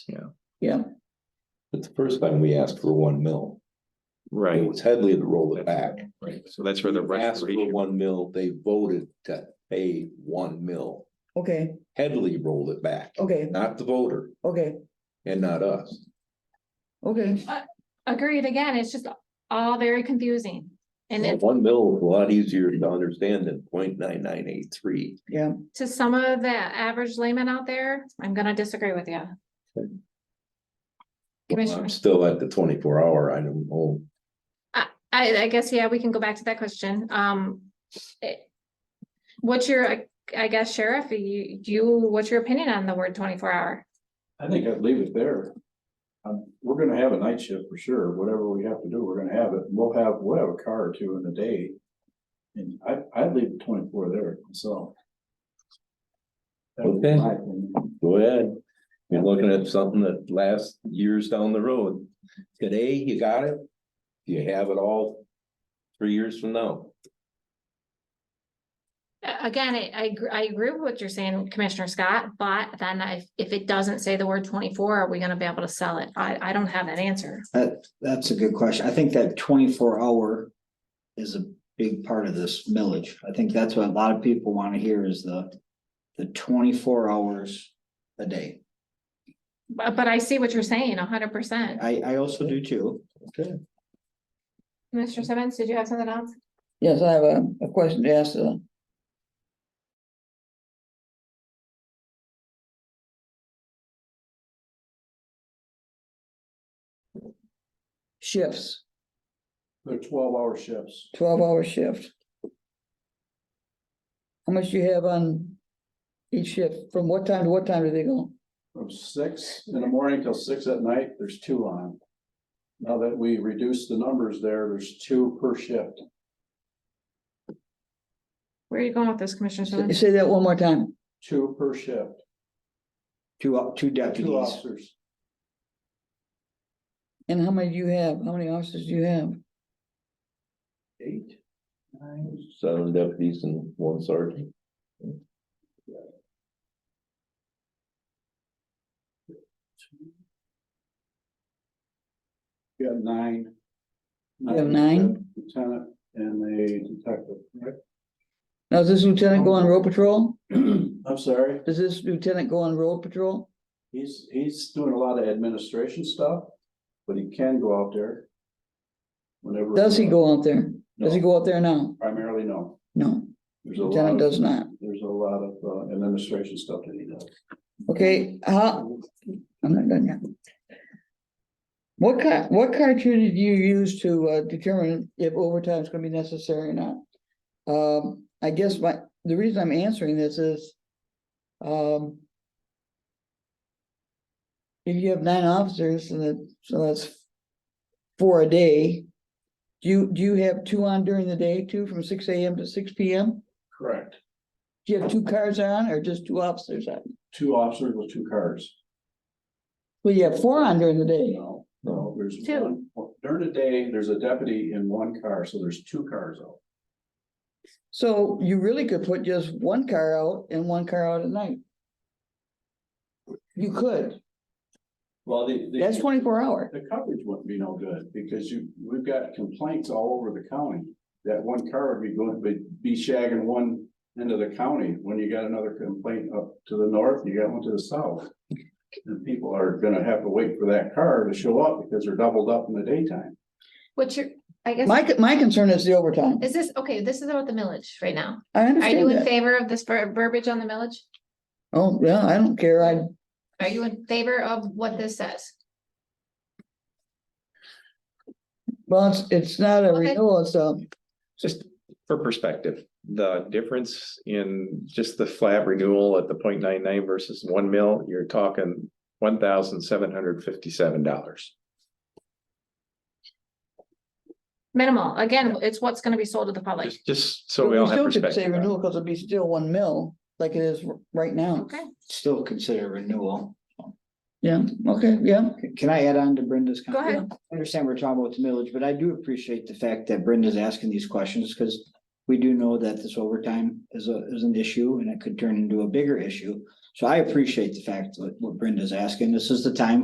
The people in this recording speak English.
But the first time we asked for one mil, it Right, was Headley that rolled it back. so that's where the We Asked for restoration, one mil, they voted to pay one mil. Okay, Headley rolled it back, okay, not the voter okay, and not us. okay. Agreed, again, it's just all very confusing. And Well, it, One mil is a lot easier to understand than point nine nine eight three. to some of the average layman out there, I'm gonna disagree with you. Commissioner, I'm still at the twenty-four hour, I don't know. I, I guess, yeah, we can go back to that question, um. it- What's your, I- I guess Sheriff, you, you, what's your opinion on the word twenty-four hour? I think I'd leave it there. Um, we're gonna have a night shift for sure, whatever we have to do, we're gonna have it, we'll have, we'll have a car or two in the day. And I, I'd leave twenty-four there, so. That would be Okay. my opinion. Go ahead. You're looking at something that lasts years down the road. Today, you got it. You have it all three years from now. A- Again, I, I, gr- I agree with what you're saying, Commissioner Scott, but then if, if it doesn't say the word twenty-four, are we gonna be able to sell it? I, I don't have that answer. That's a good question. I think that twenty-four hour is a big part of this millage. I think that's what a lot of people want to hear is the, the twenty-four hours a day. But, but I see what you're saying, hundred percent. I, I also do too. Mr. Simmons, did you have something else? Yes, I have a, a question to ask uh, the shifts, They're twelve-hour shifts. twelve hour shift. How much do you have on each shift? From what time to what time do they go? From six in the morning till six at night, there's two on. Now that we reduced the numbers there, there's two per shift. Where are you going with this, Commissioner Say- Simmons? Say that one more time. Two per shift, Two, op- two two deputies. officers, And how many do you have? How many officers do you have? Eight. Seven deputies and one sergeant. we got nine. You have nine? Lieutenant and a detective, right? Now, does this lieutenant go on road patrol? I'm sorry. Does this lieutenant go on road patrol? He's, he's doing a lot of administration stuff, but he can go out there. Whenever. Does he go out there? Does he No, go out there now? Primarily, no. No, There's a lot lieutenant of, does not. there's a lot of uh, administration stuff that he does. Okay, how, I'm not done yet. What kind, what criteria do you use to uh, determine if overtime is gonna be necessary or not? Um, I guess my, the reason I'm answering this is, um, if you have nine officers and that, so that's four a day, do you, do you have two on during the day, two from six AM to six PM? Correct. Do you have two cars on or just two officers on? Two officers with two cars. Well, you have four on during the day. No, no, there's Two. one, during the day, there's a deputy in one car, so there's two cars out. So you really could put just one car out and one car out at night. You could, Well, the. the- that's twenty-four hour. The coverage wouldn't be no good because you, we've got complaints all over the county. That one car would be going, be, be shagging one end of the county when you got another complaint up to the north, you got one to the south. And people are gonna have to wait for that car to show up because they're doubled up in the daytime. What's your, I guess, My, my concern is the overtime. is this, okay, this is about the millage right now. I Are you understand in that. favor of this ver- verbiage on the millage? Oh, yeah, I don't care. I, Are you in favor of what this says? well, it's, it's not a Okay. renewal, it's uh, a, just for perspective, the difference in just the flat renewal at the 0.99 versus one mil, you're talking one thousand seven hundred fifty-seven dollars. Minimal, again, it's what's gonna be sold to the public. Just, just so but we all we have still should say perspective. on it. renewal because it'd be still one mil like it is r- right now. Okay, Still consider renewal. Yeah, okay, yeah. C- Can I add on to Brenda's? go comment? ahead. I understand we're talking about the millage, but I do appreciate the fact that Brenda's asking these questions because we do know that this overtime is a, is an issue and it could turn into a bigger issue. So I appreciate the fact that what Brenda's asking. This is the time